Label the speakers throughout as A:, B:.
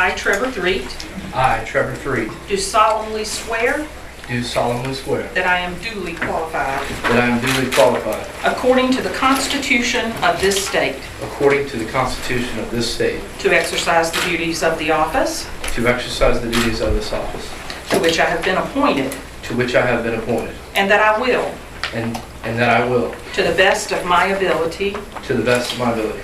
A: I, Trevor Threet,
B: I, Trevor Threet,
A: do solemnly swear
B: do solemnly swear
A: that I am duly qualified,
B: that I am duly qualified,
A: according to the Constitution of this state,
B: according to the Constitution of this state,
A: to exercise the duties of the office
B: to exercise the duties of this office,
A: to which I have been appointed,
B: to which I have been appointed,
A: and that I will,
B: and and that I will,
A: to the best of my ability,
B: to the best of my ability,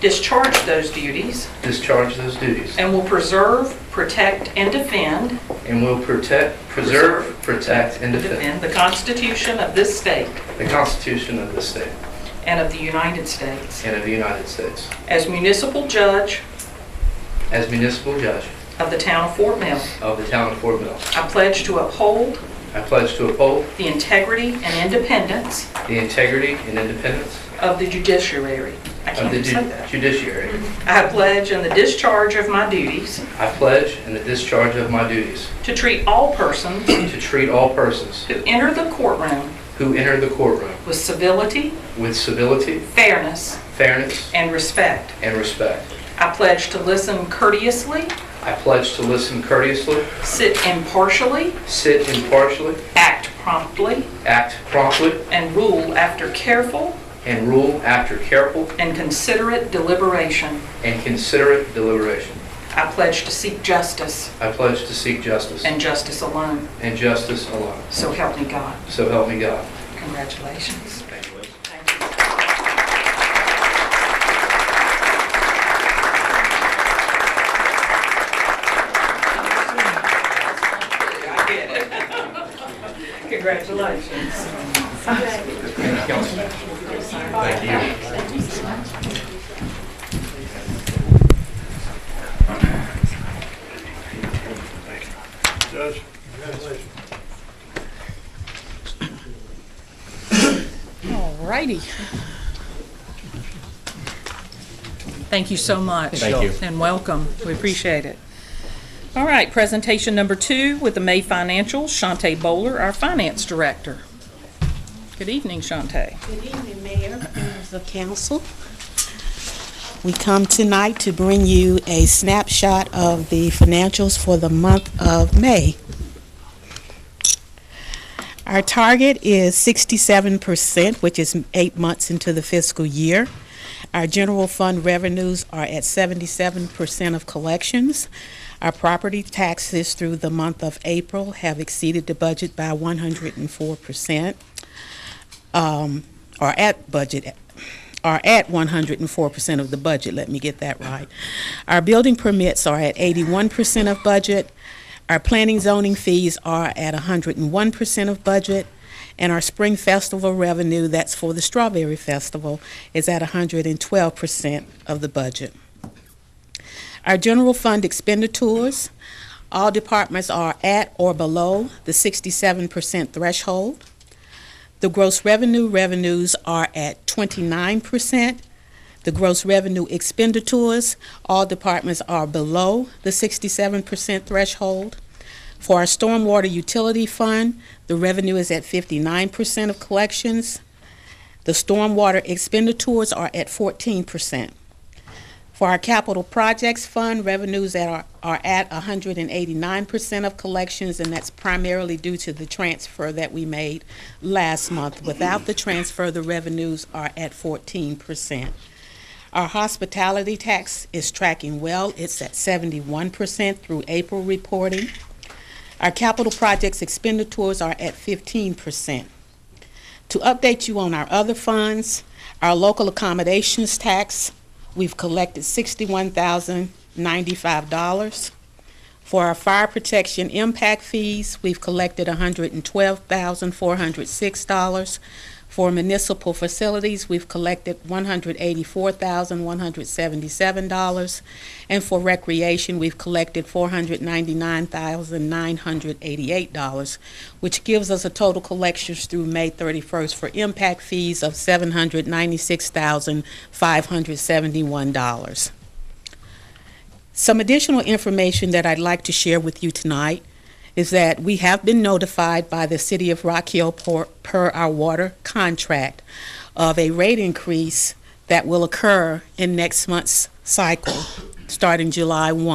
A: discharge those duties
B: discharge those duties,
A: and will preserve, protect, and defend
B: and will protect, preserve, protect, and defend
A: defend the Constitution of this state
B: the Constitution of this state
A: and of the United States.
B: and of the United States.
A: As municipal judge
B: As municipal judge
A: of the town of Fort Mill,
B: of the town of Fort Mill,
A: I pledge to uphold
B: I pledge to uphold
A: the integrity and independence
B: the integrity and independence
A: of the judiciary. I
B: of
A: can't
B: the
A: even say
B: ju-
A: that. Mm-hmm.
B: judiciary.
A: I pledge in the discharge of my duties
B: I pledge in the discharge of my duties
A: to treat all persons
B: to treat all persons
A: who enter the courtroom
B: who enter the courtroom
A: with civility,
B: with civility,
A: fairness,
B: fairness,
A: and respect.
B: and respect.
A: I pledge to listen courteously,
B: I pledge to listen courteously,
A: sit impartially,
B: sit impartially,
A: act promptly,
B: act promptly,
A: and rule after careful
B: and rule after careful
A: and considerate deliberation.
B: and considerate deliberation.
A: I pledge to seek justice
B: I pledge to seek justice
A: and justice alone.
B: and justice alone.
A: So help me God.
B: So help me God.
A: Congratulations.
B: Thank you.
A: Thank you. I get it. Congratulations.
B: Councilman.
C: Judge?
D: All righty. Thank you so much. Thank you. And welcome. We appreciate it. All right, presentation number two with the May Financials, Shante Bowler, our Finance Director. Good evening, Shante.
E: Good evening, Mayor, members of council. We come tonight to bring you a snapshot of the financials for the month of May. Our target is 67%, which is eight months into the fiscal year. Our general fund revenues are at 77% of collections. Our property taxes through the month of April have exceeded the budget by 104% um, are at budget, are at 104% of the budget, let me get that right. Our building permits are at 81% of budget, our planning zoning fees are at 101% of budget, and our spring festival revenue, that's for the Strawberry Festival, is at 112% of the budget. Our general fund expenditures, all departments are at or below the 67% threshold. The gross revenue revenues are at 29%. The gross revenue expenditures, all departments are below the 67% threshold. For our stormwater utility fund, the revenue is at 59% of collections. The stormwater expenditures are at 14%. For our capital projects fund, revenues that are, are at 189% of collections, and that's primarily due to the transfer that we made last month. Without the transfer, the revenues are at 14%. Our hospitality tax is tracking well. It's at 71% through April reporting. Our capital projects expenditures are at 15%. To update you on our other funds, our local accommodations tax, we've collected $61,095. For our fire protection impact fees, we've collected $112,406. For municipal facilities, we've collected $184,177. And for recreation, we've collected $499,988, which gives us a total collections through May 31st for impact fees of $796,571. Some additional information that I'd like to share with you tonight is that we have been notified by the City of Rock Hill por- per our water contract of a rate increase that will occur in next month's cycle, starting July 1.